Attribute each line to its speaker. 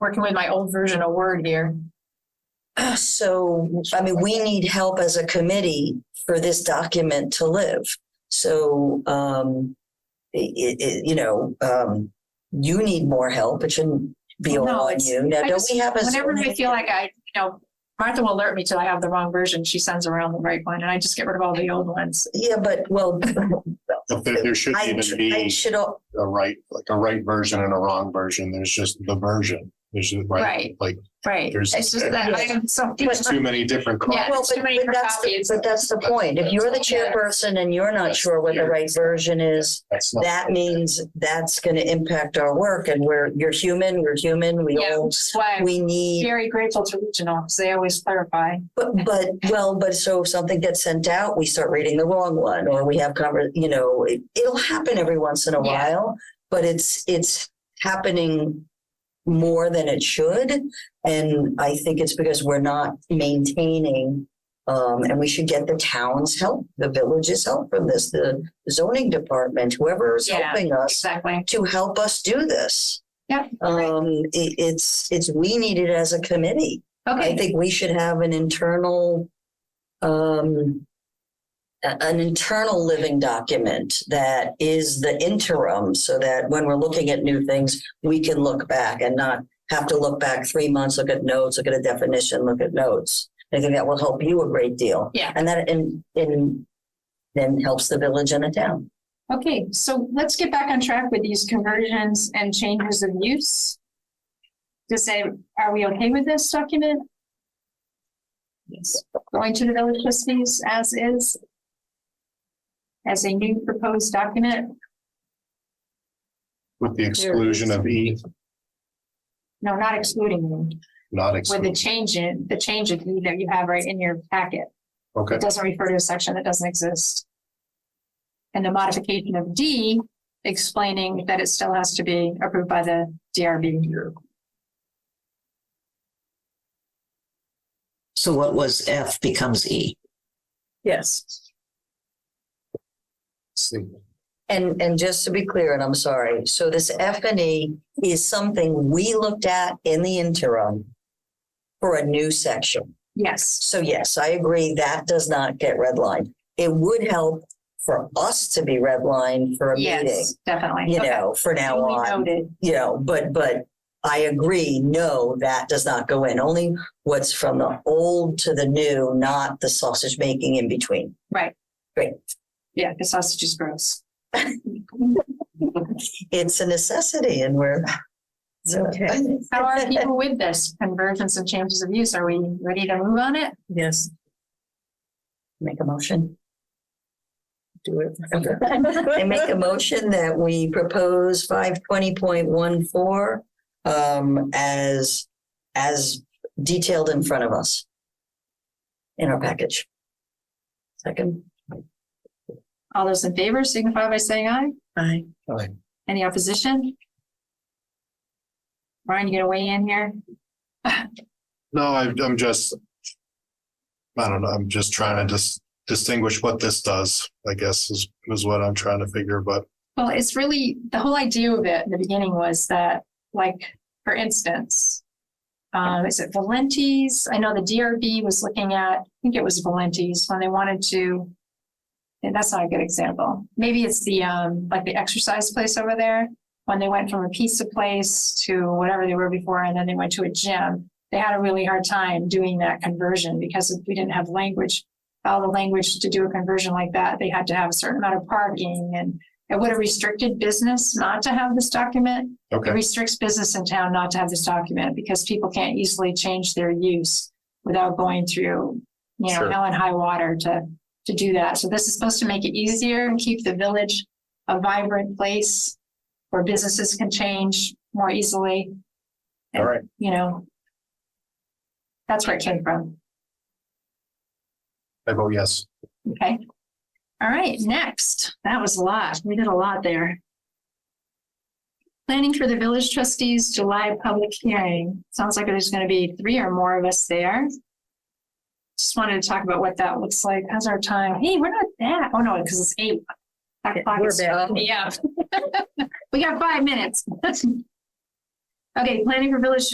Speaker 1: working with my old version of Word here.
Speaker 2: So, I mean, we need help as a committee for this document to live. So, um, i- i- i- you know, um, you need more help. It shouldn't be all
Speaker 1: No,
Speaker 2: on
Speaker 1: it's-
Speaker 2: you. Now,
Speaker 1: I
Speaker 2: don't
Speaker 1: just-
Speaker 2: we have a?
Speaker 1: Whenever I feel like I, you know, Martha will alert me till I have the wrong version. She sends around the right one and I just get rid of all the old ones.
Speaker 2: Yeah, but well,
Speaker 3: But There there shouldn't
Speaker 2: I,
Speaker 3: even
Speaker 2: I
Speaker 3: be
Speaker 2: should, al-
Speaker 3: a right, like a right version and a wrong version. There's just the version. There's the right,
Speaker 1: Right.
Speaker 3: like
Speaker 1: Right.
Speaker 3: There's-
Speaker 1: It's just that I am so.
Speaker 3: there's too many different.
Speaker 1: Yeah,
Speaker 3: cards.
Speaker 2: well,
Speaker 1: it's
Speaker 2: but
Speaker 1: too many
Speaker 2: but
Speaker 1: for
Speaker 2: that's, the-
Speaker 1: copies.
Speaker 2: but that's the point. If you're the
Speaker 1: Yeah.
Speaker 2: chairperson and you're not
Speaker 3: That's
Speaker 2: sure what the
Speaker 3: weird.
Speaker 2: right version is,
Speaker 3: That's not-
Speaker 2: that means that's going to impact our work and we're, you're human, we're human, we
Speaker 1: Yeah,
Speaker 2: all,
Speaker 1: which is why I'm
Speaker 2: we need
Speaker 1: very grateful to regional because they always clarify.
Speaker 2: But, but, well, but so if something gets sent out, we start reading the wrong one, or we have conver, you know, it, it'll happen every once in a
Speaker 1: Yeah.
Speaker 2: while, but it's, it's happening more than it should. And I think it's because we're not maintaining, um, and we should get the town's help, the village's help from this, the zoning department, whoever is
Speaker 1: Yeah.
Speaker 2: helping us
Speaker 1: Exactly.
Speaker 2: to help us do this.
Speaker 1: Yep.
Speaker 2: Um, it, it's, it's, we need it as a committee. I
Speaker 1: Okay.
Speaker 2: think we should have an internal, um, a- an internal living document that is the interim so that when we're looking at new things, we can look back and not have to look back three months, look at notes, look at a definition, look at notes. I think that will help you a great deal.
Speaker 1: Yeah.
Speaker 2: And that, and, and then helps the village and the town.
Speaker 1: Okay. So let's get back on track with these conversions and changes of use. Just say, are we okay with this document? Yes. Going to the village trustees as is? As a new proposed document?
Speaker 3: With the exclusion of E,
Speaker 1: No, not excluding them. With
Speaker 3: not
Speaker 1: the
Speaker 3: excluded.
Speaker 1: change in, the change of E that you have right in your packet.
Speaker 3: Okay,
Speaker 1: It doesn't refer to a section that doesn't exist. And the modification of D explaining that it still has to be approved by the DRB.
Speaker 4: So what was F becomes E.
Speaker 1: Yes.
Speaker 3: see,
Speaker 2: And, and just to be clear, and I'm sorry, so this F and E is something we looked at in the interim for a new section.
Speaker 1: Yes,
Speaker 2: So yes, I agree, that does not get redlined. It would help for us to be redlined for a meeting,
Speaker 1: yes, definitely.
Speaker 2: you
Speaker 1: Okay.
Speaker 2: know, for now
Speaker 1: Duly
Speaker 2: on,
Speaker 1: noted.
Speaker 2: you know, but, but I agree, no, that does not go in. Only what's from the old to the new, not the sausage making in between.
Speaker 1: Right.
Speaker 2: Great.
Speaker 1: Yeah, the sausage is gross.
Speaker 2: It's a necessity and we're. okay.
Speaker 1: How are people with this convergence and changes of use? Are we ready to move on it?
Speaker 2: Yes. Make a motion.
Speaker 5: do it.
Speaker 2: I make a motion that we propose five twenty point one four um as as detailed in front of us in our package. Second,
Speaker 1: All those in favor signify by saying aye.
Speaker 5: Aye.
Speaker 1: Any opposition? Ryan, you gonna weigh in here?
Speaker 3: no, I- I'm just, I don't know, I'm just trying to just distinguish what this does, I guess, is, is what I'm trying to figure, but
Speaker 1: Well, it's really, the whole idea of it in the beginning was that, like, for instance, um, is it Valenti's? I know the DRB was looking at, I think it was Valenti's when they wanted to, and that's not a good example. Maybe it's the, um, like the exercise place over there, when they went from a pizza place to whatever they were before, and then they went to a gym. They had a really hard time doing that conversion because we didn't have language, all the language to do a conversion like that. They had to have a certain amount of parking and it would have restricted business not to have this document. It
Speaker 3: okay,
Speaker 1: restricts business in town not to have this document because people can't easily change their use without going through, you know,
Speaker 3: Sure.
Speaker 1: hell and high water to, to do that. So this is supposed to make it easier and keep the village a vibrant place where businesses can change more easily,
Speaker 3: all right.
Speaker 1: you know. That's where it came from.
Speaker 3: I vote yes.
Speaker 1: Okay. All right, next. That was a lot. We did a lot there. Planning for the village trustees July public hearing. Sounds like there's going to be three or more of us there. Just wanted to talk about what that looks like. How's our time? Hey, we're not that. Oh, no, because it's eight. That
Speaker 5: Yeah,
Speaker 1: clock
Speaker 5: we're
Speaker 1: is-
Speaker 5: back.
Speaker 1: Yeah. We got five minutes. Okay, planning for village